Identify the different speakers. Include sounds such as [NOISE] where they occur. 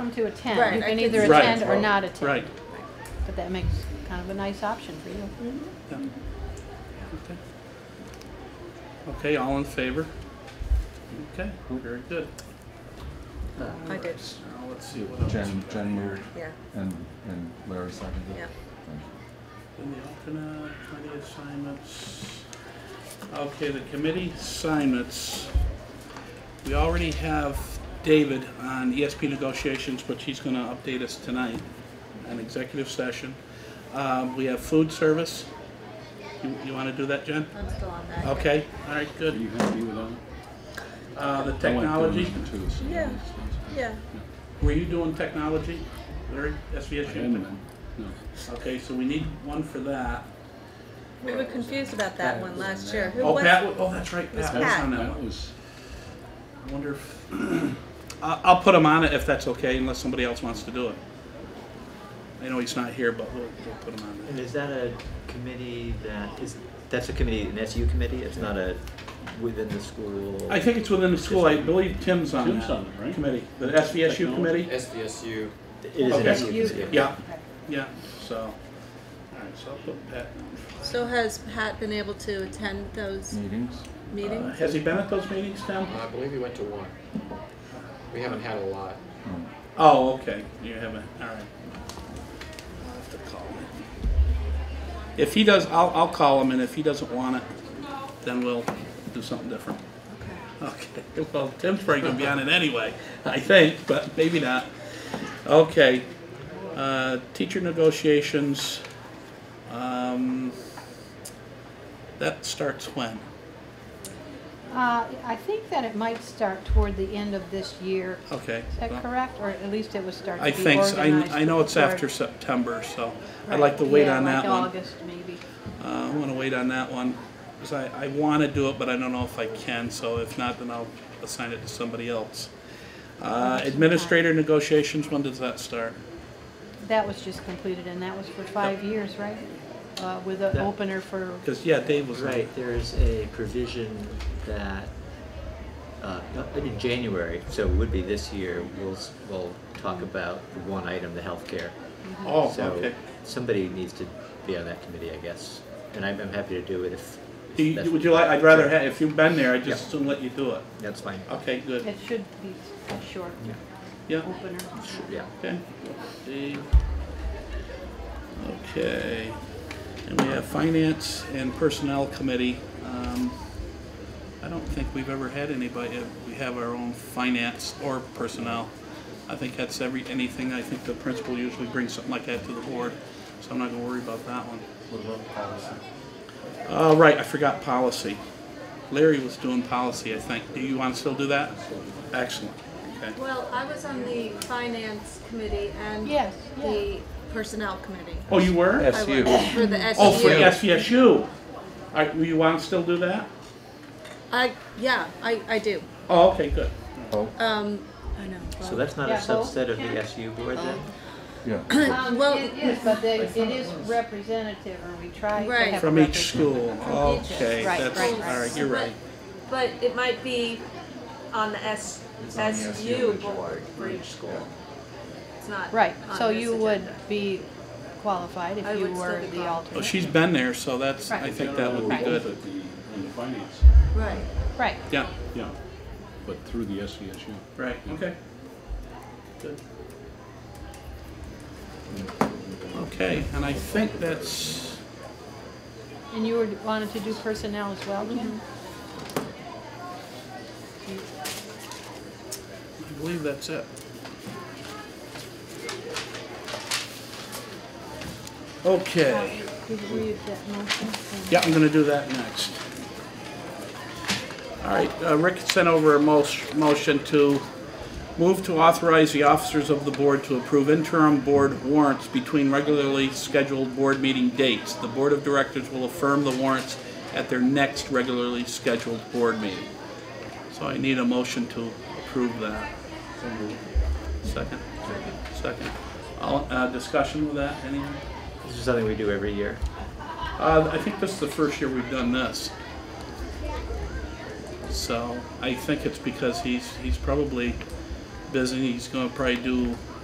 Speaker 1: welcome to attend.
Speaker 2: Right,
Speaker 1: You
Speaker 2: I
Speaker 1: can
Speaker 2: can
Speaker 1: either
Speaker 2: see that.
Speaker 1: attend or not attend.
Speaker 3: Right.
Speaker 1: But that makes kind of a nice option for you.
Speaker 3: yeah. Okay. Okay, all in favor? Okay, very good.
Speaker 2: I did.
Speaker 3: Now, let's see what else.
Speaker 4: Jen,
Speaker 3: we got
Speaker 4: Jen
Speaker 3: here.
Speaker 4: moved
Speaker 2: Yeah,
Speaker 4: and, and Larry seconded.
Speaker 2: yeah.
Speaker 3: In the alternate, committee assignments. Okay, the committee assignments. We already have David on ESP negotiations, which he's gonna update us tonight, an executive session. Um, we have food service. You, you wanna do that, Jen?
Speaker 2: I'm still on that.
Speaker 3: Okay, all right,
Speaker 5: Are
Speaker 3: good.
Speaker 5: you happy with that?
Speaker 3: Uh, the
Speaker 4: I like doing
Speaker 3: technology,
Speaker 4: this too, so
Speaker 2: Yeah.
Speaker 4: it's- it's-
Speaker 2: Yeah,
Speaker 3: were you doing technology, Larry, SVSU?
Speaker 5: I haven't been, no.
Speaker 3: Okay, so we need one for that.
Speaker 2: we were confused about that one last year. Who
Speaker 3: Oh,
Speaker 2: was-
Speaker 3: Pat, oh, that's right,
Speaker 2: was
Speaker 3: Pat was
Speaker 2: Pat.
Speaker 3: on that one.
Speaker 5: That was,
Speaker 3: I wonder if, [CLEARS THROAT] I- I'll put him on it if that's okay, unless somebody else wants to do it. I know he's not here, but we'll, we'll put him on
Speaker 6: And
Speaker 3: there.
Speaker 6: is that a committee that is, that's a committee, an SU committee? It's not a within the school?
Speaker 3: I think it's within the school, I believe Tim's on
Speaker 5: Tim's
Speaker 3: that
Speaker 5: on it, right?
Speaker 3: committee, the SVSU
Speaker 5: Technology.
Speaker 3: committee?
Speaker 7: SVSU.
Speaker 6: It is an
Speaker 3: Okay.
Speaker 6: SU committee.
Speaker 3: Yeah, yeah, so, all right, so I'll put Pat.
Speaker 2: So has Pat been able to attend those
Speaker 4: Meetings.
Speaker 3: Uh,
Speaker 2: meetings?
Speaker 3: Has he been at those meetings, Tim?
Speaker 7: I believe he went to one. We haven't had a lot.
Speaker 4: Mm.
Speaker 3: Oh, okay, you haven't, all right. I'll have to call him. If he does, I'll, I'll call him, and if he doesn't want it, then we'll do something different. Okay, [LAUGHS] well, Tim's probably gonna be on it anyway, I think, but maybe not. Okay, uh, teacher negotiations, um, that starts when?
Speaker 1: Uh, I think that it might start toward the end of this year.
Speaker 3: Okay.
Speaker 1: Is that
Speaker 3: Oh, well,
Speaker 1: correct? Or at least it would start
Speaker 3: I
Speaker 1: to be
Speaker 3: think, so.
Speaker 1: organized.
Speaker 3: I, I know it's
Speaker 1: before-
Speaker 3: after September, so I'd
Speaker 1: Right.
Speaker 3: like to wait
Speaker 1: Yeah,
Speaker 3: on that one.
Speaker 1: Like August, maybe.
Speaker 3: Uh, I want to wait on that one, because I, I want to do it, but I don't know if I can, so if not, then I'll assign it to somebody else. Uh, Administrator negotiations, when does that start?
Speaker 1: That was just completed, and that was for five years, right? Uh, With an
Speaker 6: That-
Speaker 1: opener for,
Speaker 3: Because, yeah, Dave was.
Speaker 6: Right, there's a provision that, uh, not- in January, so it would be this year, we'll, s- we'll talk about the one item, the healthcare.
Speaker 3: Oh,
Speaker 6: So
Speaker 3: okay.
Speaker 6: somebody needs to be on that committee, I guess, and I'm, I'm happy to do it if. if
Speaker 3: Do you-
Speaker 6: that's-
Speaker 3: Would you like, I'd rather,
Speaker 6: Sure.
Speaker 3: have if you've been there, I'd just
Speaker 6: Yeah.
Speaker 3: soon let you do it.
Speaker 6: That's fine,
Speaker 3: Okay, good.
Speaker 1: it should be a short
Speaker 6: Yeah.
Speaker 3: Yeah,
Speaker 1: opener.
Speaker 6: yeah.
Speaker 3: okay. Dave. Okay. And we have Finance and Personnel Committee. Um, I don't think we've ever had anybody, uh, we have our own finance or personnel. I think that's every, anything, I think the principal usually brings something like that to the board, so I'm not gonna worry about that one.
Speaker 4: What about policy?
Speaker 3: Uh, right, I forgot policy. Larry was doing policy, I think. Do you wanna still do that? Excellent, okay.
Speaker 2: Well, I was on the finance committee and
Speaker 1: Yes, yeah.
Speaker 2: the personnel committee.
Speaker 3: Oh, you were?
Speaker 2: I
Speaker 4: SU.
Speaker 2: was For the E
Speaker 3: Oh, for
Speaker 2: SU.
Speaker 3: SVSU. I, will you wanna still do that?
Speaker 2: I, yeah, I, I do.
Speaker 3: Oh, okay, good.
Speaker 4: Oh,
Speaker 2: Um, I know.
Speaker 6: So that's not a
Speaker 1: Yeah, both
Speaker 6: subset of
Speaker 1: can-
Speaker 6: the SU board then?
Speaker 4: yeah.
Speaker 2: Well-
Speaker 1: Um, It is, but they- it is representative, or we try to
Speaker 2: Right.
Speaker 1: have.
Speaker 3: From each
Speaker 1: representative.
Speaker 3: school,
Speaker 2: From each.
Speaker 3: okay,
Speaker 1: Right,
Speaker 3: that's,
Speaker 1: right,
Speaker 3: all
Speaker 1: right.
Speaker 3: right, you're right.
Speaker 2: But it might be on the S,
Speaker 4: It's on the SU agenda.
Speaker 2: for each school. It's not.
Speaker 1: Right,
Speaker 2: on
Speaker 1: so
Speaker 2: this
Speaker 1: you would
Speaker 2: agenda.
Speaker 1: be qualified
Speaker 2: I
Speaker 1: if you
Speaker 2: would still
Speaker 1: were
Speaker 2: be
Speaker 1: the
Speaker 2: qualified.
Speaker 3: Well,
Speaker 1: alternate.
Speaker 3: Oh, she's been there, so that's, I
Speaker 1: Right.
Speaker 3: think that would be
Speaker 1: Right.
Speaker 3: good.
Speaker 5: At the, on the finance,
Speaker 2: Right.
Speaker 1: Right,
Speaker 3: Yeah,
Speaker 5: yeah, but through the SVSU.
Speaker 3: right, okay. Good. Okay, and I think that's,
Speaker 1: and you were- wanted to do personnel as well, Jim?
Speaker 3: I believe that's it. Okay,
Speaker 2: Mm-hmm.
Speaker 1: Did we read that motion?
Speaker 3: yeah, I'm gonna do that next. All right, uh, Rick sent over a mo- motion to move to authorize the officers of the board to approve interim board warrants between regularly scheduled board meeting dates. The board of directors will affirm the warrants at their next regularly scheduled board meeting. So I need a motion to approve that. Second? Second. All, uh, discussion with that, any?
Speaker 6: This is something we do every year.
Speaker 3: Uh, I think this is the first year we've done this. So I think it's because he's, he's probably busy, he's gonna probably do